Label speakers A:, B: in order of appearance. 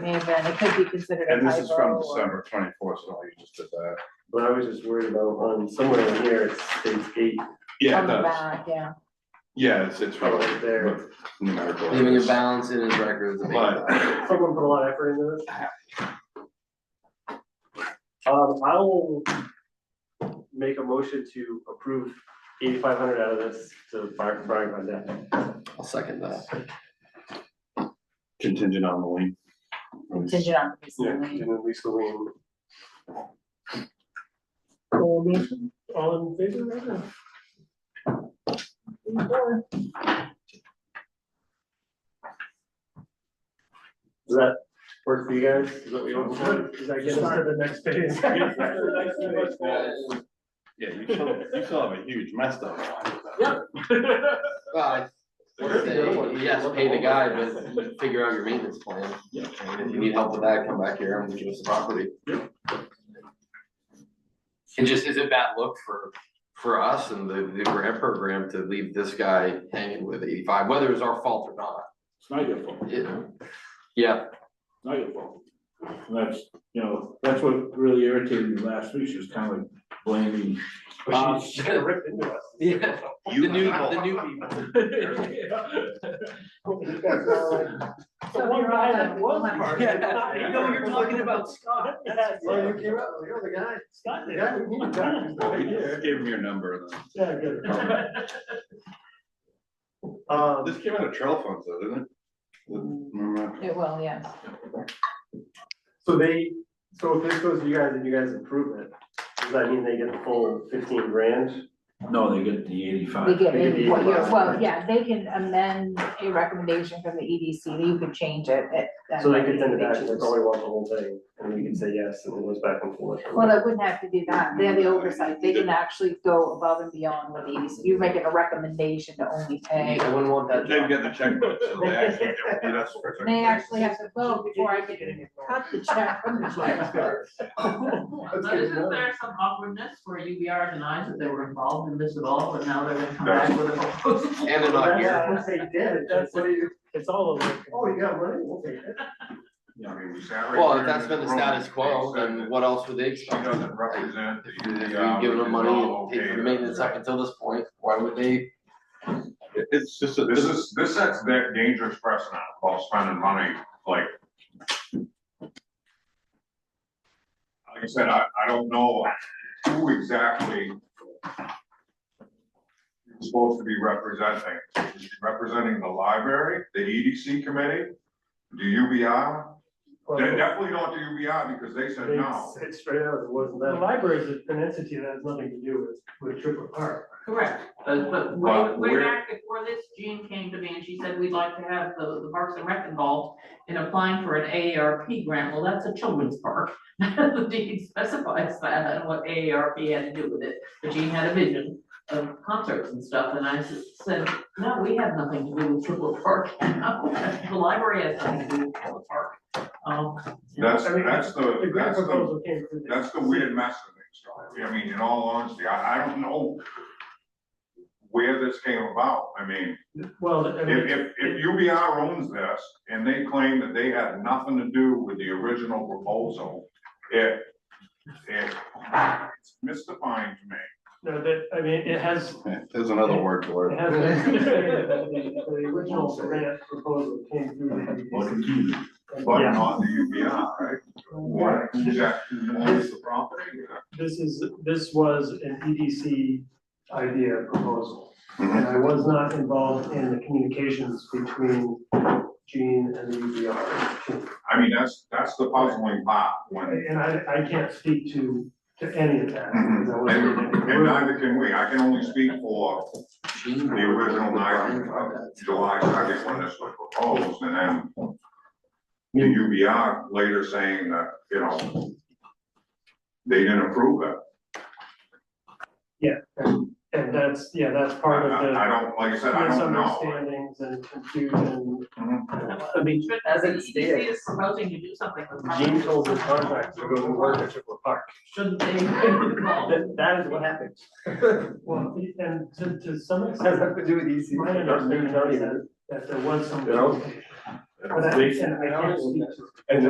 A: may have been, it could be considered a
B: And this is from
A: typo or.
B: December twenty-fourth, so you just did that.
C: But I was just worried about on somewhere in here, it's page eight,
B: Yeah,
A: On
B: it
A: the
B: does.
A: back, yeah,
B: Yeah, it's, it's
C: right
B: related,
C: there.
B: but numerical.
D: Leaving a
B: errors.
D: balance in his records. and making
B: But-
D: that.
C: Someone put a lot of effort into this. Um, I will make a motion to approve eighty-five hundred out of this to Brian, Brian Grandet.
D: I'll second that.
B: Contingent on the lien.
A: contingent on. the
B: Yeah,
C: And
A: facility.
C: then Lisa Lane.
A: Cool, Lisa.
C: All in favor right now?
A: Sure.
C: Does that work for you guys? Is that what you want for? Does that get us to the next phase?
B: Yeah, you still, you still have a huge mess though.
C: Yeah.
D: Well, I-
C: Where's the other one?
D: Yes, pay the guy, but you figure out your maintenance plan.
B: Yeah.
D: And If you need help with that, come back here and give us the property. And just, is it bad look for, for us and the, the grant program to leave this guy hanging with eighty-five, whether it's our fault or not?
E: It's not your fault,
D: It- Yeah,
E: it's not your fault. And that's, you know, that's what really irritated me last week, she was kind of like blaming.
C: But she- she kinda ripped into us.
D: yeah, the
B: You
D: new, the new people.
A: So you're all done.
D: Yeah,
C: No,
D: you're talking about
C: Scott. Yes, well, you came up, you're the guy. Scott did. Yeah, we need a doctor,
B: Well,
C: right
B: we
C: here.
B: just Gave him your number then.
C: Yeah, good. Um,
B: Oh, This came out of trail funds though, didn't it? Remember?
A: It will, yes.
C: so they, so if this goes to you guys and you guys approve it, does that mean they get the full fifteen grand?
E: No, they get the
A: They
B: Uh,
E: eighty-five.
A: get
C: They give
A: maybe
C: you
A: what you're,
C: five.
A: well, yeah, they can amend a recommendation from the EDC, you could change it at. at
C: So they could send it
A: whatever
C: back,
A: they
C: and they
A: choose.
C: probably want the whole thing, and we can say yes, and it goes back and forth.
A: Well, they wouldn't have to do that, they have the oversight, they can actually go above and beyond what the EDC, you're making a recommendation to only pay.
D: I wouldn't want that
B: They've got
D: job.
B: the checkbook, so they actually don't need us for a second.
A: They actually have to vote before I can cut the check from the check.
C: That's
F: But
C: good to
F: isn't
C: know.
F: there some awkwardness where UBR denies that they were involved in this at all, and now they're gonna come back with a proposal?
D: And they're not here.
C: Once they did, that's what you,
G: It's all over.
C: oh, you got money, we'll take it.
B: I mean, we sat right
D: Well,
B: there
D: if that's
B: in
D: been the
B: room,
D: status quo,
B: they said
D: then
B: that
D: what else would they
B: She
D: expect?
B: doesn't represent
D: If
B: the. um,
D: We've given them money and paid for the
B: the
D: maintenance up until this point, why would they?
B: It's just, a-
H: This is, this sets that dangerous precedent while spending money, like. Like I said, I, I don't know who exactly. you're Supposed to be representing, representing the library, the EDC committee, the UBI, they definitely not the UBI because they said no.
C: They said straight out, it wasn't
G: The
C: that.
G: library is an entity that has nothing to do with, with Triple Park.
F: Correct, but, but way,
B: But
F: way
B: we're-
F: back before this, Jean came to me and she said, we'd like to have the, the Parks and Rec involved in applying for an AARP grant, well, that's a children's park. The deed specifies that and what AARP had to do with it, but Jean had a vision of concerts and stuff, and I s- said, no, we have nothing to do with Triple Park. The library has nothing to do with Triple Park. Um,
H: That's,
G: I mean,
H: that's
G: The
H: the,
G: grant
H: that's the,
G: proposal came through.
H: that's the weird mess of things, Charlie. I mean, in all honesty, I, I don't know where this came about. I mean,
G: Well, I mean,
H: If, if, if UBR owns this and they claim that they had nothing to do with the original proposal, it, it, it's mystifying to me.
G: no, that, I mean, it has,
B: there's another word for
G: it
B: it.
G: has. been stated that The the original grant proposal came through. the
H: But
G: EDC.
C: Yeah.
H: not the UBR, right? What, exactly, owns the property?
G: This is, this was an EDC idea proposal.
B: Mhm.
G: And I was not involved in the communications between Gene and the E UBR. team.
H: I mean, that's, that's the puzzling part when,
G: And I, I can't speak to, to any of that.
H: Mm-hmm.
G: because I wasn't in
H: and
G: any
H: and
G: room.
H: neither can we. I can only speak for
D: Gene
H: the
D: would- would
H: original
D: Brian
H: night
D: try
H: of
D: that?
H: July second when this was proposed and then the UBR later saying that, you know, they didn't approve it.
G: And that's, yeah, that's
H: I,
G: part of the.
H: I- I don't, like I said, I don't know. Mm-hmm.
G: misunderstandings and confusion.
C: I mean,
F: But
C: as E it
F: the EDC
C: stands,
F: is proposing to do something with.
C: Gene told the contractor to go to work at Triple Park.
F: Shouldn't they be involved?
C: That, that is what happened.
G: Well, and to, to some
C: It Has
G: extent,
C: nothing to do with E EC.
G: my understanding is that, that there was some.
C: You know?
G: But I, and I can't speak to
C: And